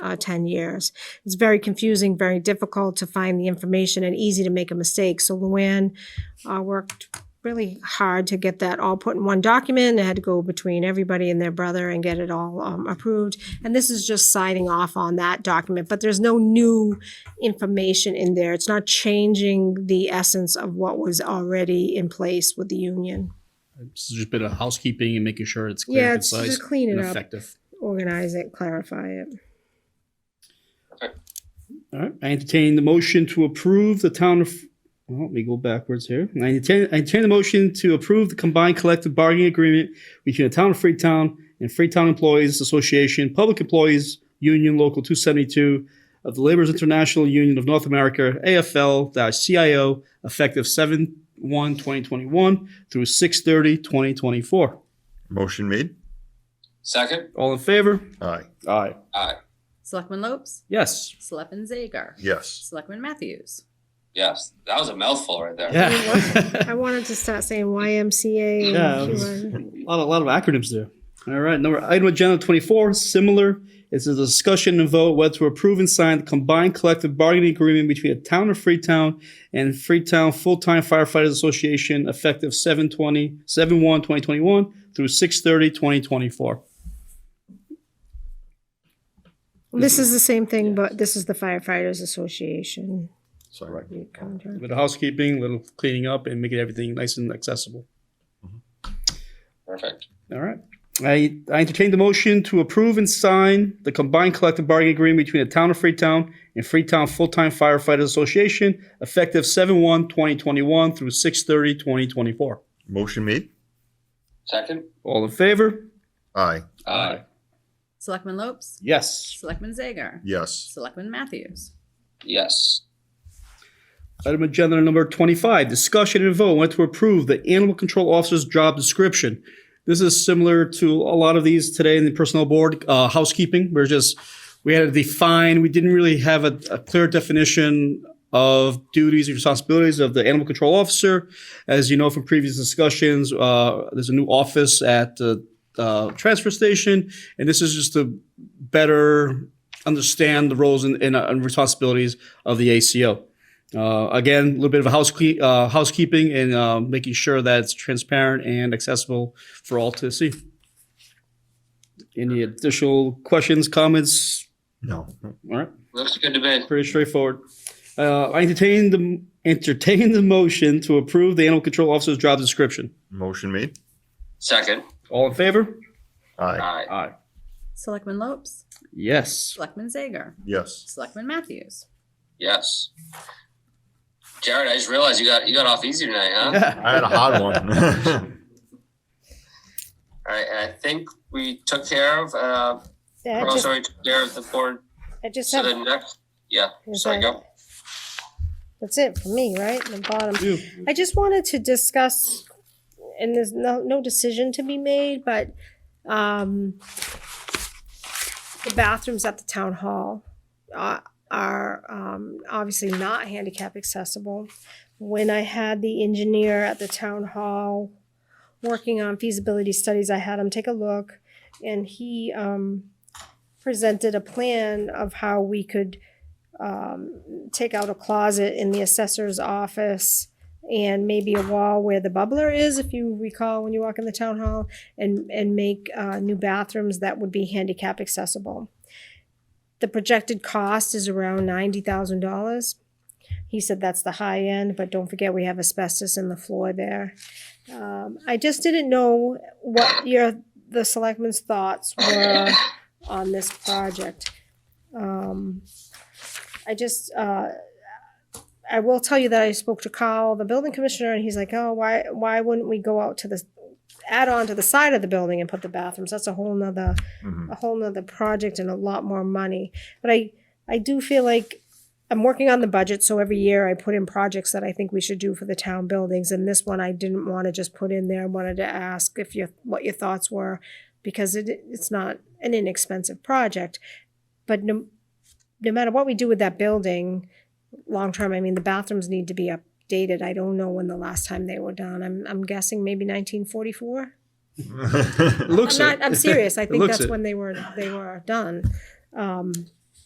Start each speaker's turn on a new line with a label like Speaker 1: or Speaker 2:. Speaker 1: uh, ten years. It's very confusing, very difficult to find the information and easy to make a mistake. So Luann uh, worked really hard to get that all put in one document. It had to go between everybody and their brother and get it all um, approved. And this is just signing off on that document, but there's no new information in there. It's not changing the essence of what was already in place with the union.
Speaker 2: This is just a bit of housekeeping and making sure it's clear,
Speaker 1: Yeah, it's
Speaker 2: concise,
Speaker 1: just clean
Speaker 2: and
Speaker 1: it up,
Speaker 2: effective.
Speaker 1: organize it, clarify it.
Speaker 2: All right. I entertain the motion to approve the town of. Well, let me go backwards here. I entertain, I entertain the motion to approve the combined collective bargaining agreement between the town of Freetown and Freetown Employees Association, Public Employees Union Local 272 of the Laborers International Union of North America, AFL-CIO, effective 7/1/2021 through 6/30/2024.
Speaker 3: Motion made.
Speaker 4: Second?
Speaker 2: All in favor?
Speaker 3: Aye.
Speaker 2: Aye.
Speaker 4: Aye.
Speaker 5: Selectman Lopes,
Speaker 2: Yes.
Speaker 5: Selectman Zager,
Speaker 3: Yes.
Speaker 5: Selectman Matthews.
Speaker 4: Yes. That was a mouthful right there.
Speaker 2: Yeah.
Speaker 1: I wanted to start saying YMCA. and
Speaker 2: Yeah, it was-
Speaker 1: QR.
Speaker 2: A lot, of, lot of acronyms there. All right, number item agenda 24, similar. It's a discussion and vote whether to approve and sign the combined collective bargaining agreement between the town of Freetown and Freetown Full Time Firefighters Association effective 720, 71 2021 through 630 2024.
Speaker 1: This is the same thing, but this is the firefighters association
Speaker 3: Sorry.
Speaker 2: A
Speaker 1: contract.
Speaker 2: little housekeeping, a little cleaning up, and making everything nice and accessible.
Speaker 4: Perfect.
Speaker 2: All right. I, I entertain the motion to approve and sign the combined collective bargaining agreement between the town of Freetown and Freetown Full-Time Firefighters Association effective seven one 2021 through six thirty 2024.
Speaker 3: Motion made.
Speaker 4: Second? Uh,
Speaker 2: All in favor?
Speaker 3: Aye.
Speaker 4: Aye.
Speaker 5: Selectman Lopes,
Speaker 2: Yes.
Speaker 5: Selectman Zager,
Speaker 3: Yes.
Speaker 5: Selectman Matthews.
Speaker 4: Yes.
Speaker 2: Item agenda number 25, discussion and vote went to approve the animal control officer's job description. This is similar to a lot of these today in the personnel board, uh, housekeeping. We're just, we had to define, we didn't really have a, a clear definition of duties and responsibilities of the animal control officer. As you know from previous discussions, uh, there's a new office at the, uh, transfer station. And this is just to better understand the roles and, and, uh, and responsibilities of the ACO. Uh, again, a little bit of housekeep, uh, housekeeping and uh, making sure that it's transparent and accessible for all to see. Any additional questions, comments?
Speaker 3: No.
Speaker 2: All right,
Speaker 4: Looks good to me.
Speaker 2: pretty straightforward. Uh, I entertain the entertain the motion to approve the animal control officer's job description.
Speaker 3: Motion made.
Speaker 4: Second?
Speaker 2: All in favor?
Speaker 3: Aye.
Speaker 4: Aye.
Speaker 2: Aye.
Speaker 5: Selectman Lopes,
Speaker 2: Yes.
Speaker 5: Selectman Zager,
Speaker 3: Yes.
Speaker 5: Selectman Matthews.
Speaker 4: Yes. Jared, I just realized you got you got off easy tonight, huh?
Speaker 3: I had a hard one.
Speaker 4: All right, and I think we took care of uh
Speaker 1: I
Speaker 4: oh,
Speaker 1: just-
Speaker 4: sorry, took care of the board.
Speaker 1: I just
Speaker 4: So
Speaker 1: have
Speaker 4: the next yeah,
Speaker 1: Is
Speaker 4: sorry,
Speaker 1: that-
Speaker 4: go.
Speaker 1: That's it for me, right? The bottom.
Speaker 2: You.
Speaker 1: I just wanted to discuss, and there's no, no decision to be made, but, um, the bathrooms at the town hall are, are, um, obviously not handicap accessible. When I had the engineer at the town hall working on feasibility studies, I had him take a look, and he, um, presented a plan of how we could, um, take out a closet in the assessor's office and maybe a wall where the bubbler is, if you recall when you walk in the town hall, and, and make uh, new bathrooms that would be handicap accessible. The projected cost is around $90,000. He said that's the high end, but don't forget we have asbestos in the floor there. Um, I just didn't know what your the selectmen's thoughts were on this project. Um, I just, uh, I will tell you that I spoke to Carl, the building commissioner, and he's like, oh, why, why wouldn't we go out to the, add on to the side of the building and put the bathrooms? That's a whole nother,
Speaker 3: Mhm.
Speaker 1: a whole nother project and a lot more money. But I, I do feel like I'm working on the budget, so every year I put in projects that I think we should do for the town buildings. And this one I didn't want to just put in there. I wanted to ask if your, what your thoughts were, because it, it's not an inexpensive project. But no, no matter what we do with that building, long term, I mean, the bathrooms need to be updated. I don't know when the last time they were done. I'm, I'm guessing maybe 1944. I'm
Speaker 2: Looks it.
Speaker 3: Mm-hmm.
Speaker 1: not, I'm serious. I
Speaker 2: It
Speaker 1: think
Speaker 2: looks
Speaker 1: that's
Speaker 2: it.
Speaker 1: when they were, they were done. Um,